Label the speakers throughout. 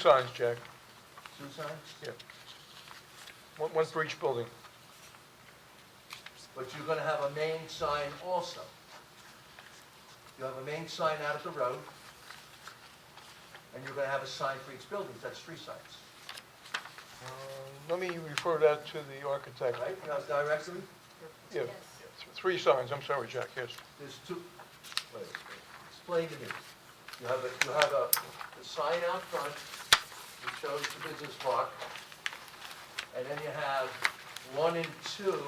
Speaker 1: Signs, Jack,
Speaker 2: Two signs?
Speaker 1: yeah. One, one for each building.
Speaker 2: But you're gonna have a main sign also. You have a main sign out at the road, and you're gonna have a sign for each building, that's three signs,
Speaker 1: Uh, Let me refer that to the architect.
Speaker 2: right? You have directly,
Speaker 1: Yeah, th- three signs, I'm sorry, Jack, yes.
Speaker 2: there's two, wait, explain to me. You have a, you have a, a sign out front that shows the business park, and then you have one and two,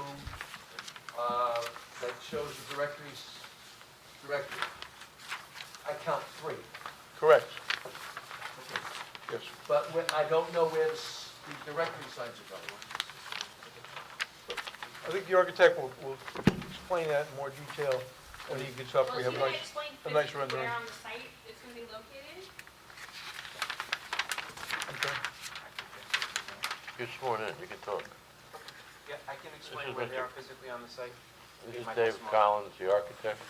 Speaker 2: uh, that shows the directories, directory. I count three.
Speaker 1: Correct, yes.
Speaker 2: But when- I don't know where the s- the directory signs are going.
Speaker 1: I think the architect will, will explain that in more detail when he gets up.
Speaker 3: Well,
Speaker 1: We
Speaker 3: if you
Speaker 1: have
Speaker 3: can
Speaker 1: nice,
Speaker 3: explain
Speaker 1: a nice
Speaker 3: physically
Speaker 1: rendering.
Speaker 3: where on the site it's gonna be located?
Speaker 1: I'm sorry.
Speaker 4: You're sworn in, you can talk.
Speaker 5: Yeah, I can explain
Speaker 4: is
Speaker 5: where
Speaker 4: Mr.
Speaker 5: they are physically on the site.
Speaker 4: This is
Speaker 5: Michael
Speaker 4: David
Speaker 5: Small.
Speaker 4: Collins, the architect.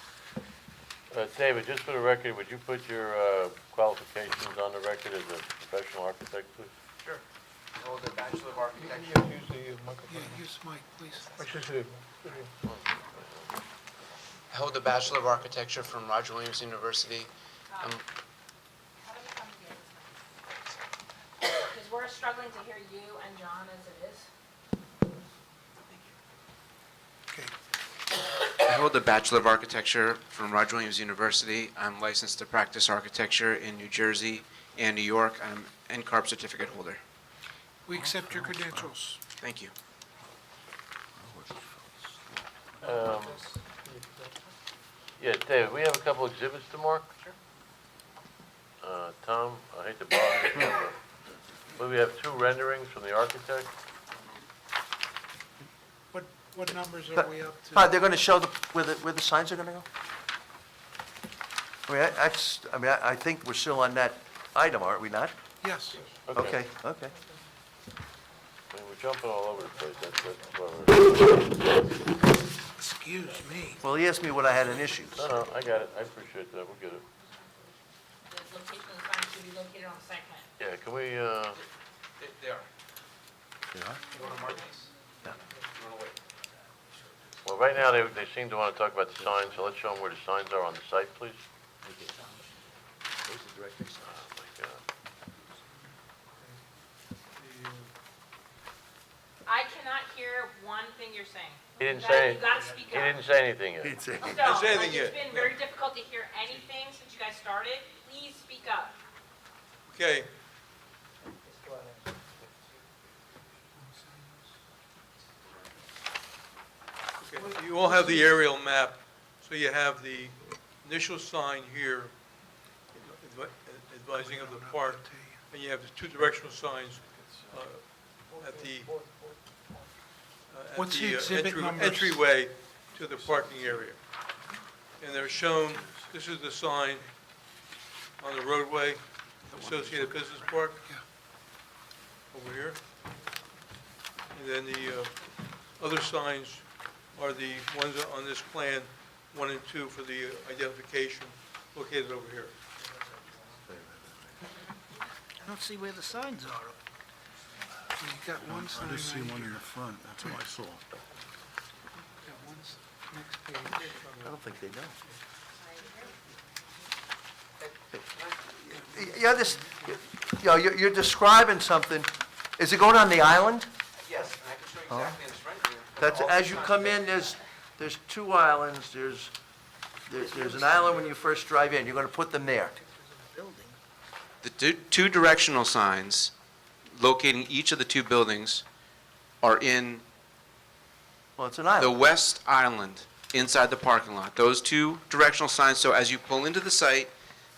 Speaker 4: Uh, David, just for the record, would you put your uh, qualifications on the record as a professional architect, please?
Speaker 5: Sure. I hold a Bachelor of
Speaker 1: You-
Speaker 5: Architecture.
Speaker 1: you Use the uh,
Speaker 6: Yeah,
Speaker 1: microphone.
Speaker 6: use mic, please.
Speaker 1: Which is it?
Speaker 5: I hold a Bachelor of Architecture from Roger Williams University.
Speaker 3: How about you come here this Because we're struggling to hear you and John as it is.
Speaker 6: Okay,
Speaker 7: I hold a Bachelor of Architecture from Roger Williams University. I'm licensed to practice architecture in New Jersey and New York. I'm NCARB certificate holder.
Speaker 6: we accept your credentials.
Speaker 7: Thank you.
Speaker 4: Um, Yeah, David, we have a couple exhibits to mark.
Speaker 5: Sure.
Speaker 4: Uh, Tom, I hate to bother you, but we have two renderings from the architect.
Speaker 6: What, what numbers are we up to?
Speaker 2: Todd, they're gonna show the, where the, where the signs are gonna go? I mean, I, I just- I mean, I, I think we're still on that item, aren't we not?
Speaker 6: Yes,
Speaker 2: Okay, okay.
Speaker 4: I mean, We're jumping all over the place, that's, that's why we're,
Speaker 6: excuse me.
Speaker 2: Well, he asked me what I had in issues.
Speaker 4: no, no, I got it, I appreciate that, we'll get it.
Speaker 3: The location of the sign should be located on the site plan.
Speaker 4: Yeah, can we, uh,
Speaker 5: They they are. You want to mark these? No. You want to wait?
Speaker 4: Well, right now, they, they seem to want to talk about the signs, so let's show them where the signs are on the site, please. Oh, my God.
Speaker 3: I cannot hear one thing you're saying.
Speaker 4: He didn't
Speaker 3: You
Speaker 4: say,
Speaker 3: gotta- You gotta speak
Speaker 4: he
Speaker 3: up.
Speaker 4: didn't say anything yet.
Speaker 3: So, like, it's been very difficult to hear anything since you guys started. Please speak up.
Speaker 8: Okay, okay. you all have the aerial map, so you have the initial sign here advi- advising of the park, and you have the two directional signs uh, at the, uh, at
Speaker 6: What's the
Speaker 8: the uh,
Speaker 6: exhibit
Speaker 8: entry-
Speaker 6: numbers?
Speaker 8: entryway to the parking area. And they're shown, this is the sign on the roadway, Associated Business Park. Over here. And then the uh, other signs are the ones on this plan, one and two for the uh, identification located over here.
Speaker 6: I don't see where the signs are. You got one sign
Speaker 9: I just see
Speaker 6: right
Speaker 9: one
Speaker 6: here.
Speaker 9: in the front, that's what I saw.
Speaker 6: Got one s- next page.
Speaker 2: I don't think they know. You're just, you know, you're you're describing something. Is it going on the island?
Speaker 5: Yes, and I can show you exactly this rendering. of
Speaker 2: That's,
Speaker 7: Oh.
Speaker 5: all the
Speaker 2: as you
Speaker 5: signs.
Speaker 2: come in, there's, there's two islands, there's, there's there's an island when you first drive in, you're gonna put them there.
Speaker 7: The du- two directional signs locating each of the two buildings are in
Speaker 2: Well, it's an
Speaker 7: the
Speaker 2: island.
Speaker 7: west island inside the parking lot. Those two directional signs, so as you pull into the site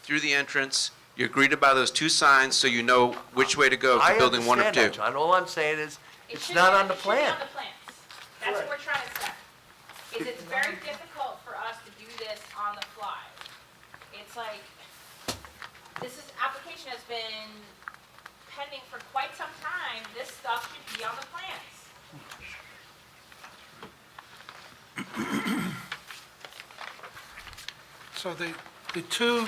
Speaker 7: through the entrance, you're greeted by those two signs so you know which way to go
Speaker 2: I
Speaker 7: to building one or
Speaker 2: understand
Speaker 7: two.
Speaker 2: that, John, all I'm saying is,
Speaker 3: It
Speaker 2: it's
Speaker 3: should
Speaker 2: not
Speaker 3: be-
Speaker 2: on the
Speaker 3: it should be
Speaker 2: plan.
Speaker 3: on the plans. That's what we're trying to say. Is it's very difficult for us to do this on the fly. It's like, this is, application has been pending for quite some time. This stuff should be on the plans.
Speaker 6: So the, the two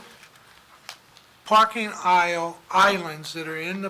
Speaker 6: parking aisle islands that are in the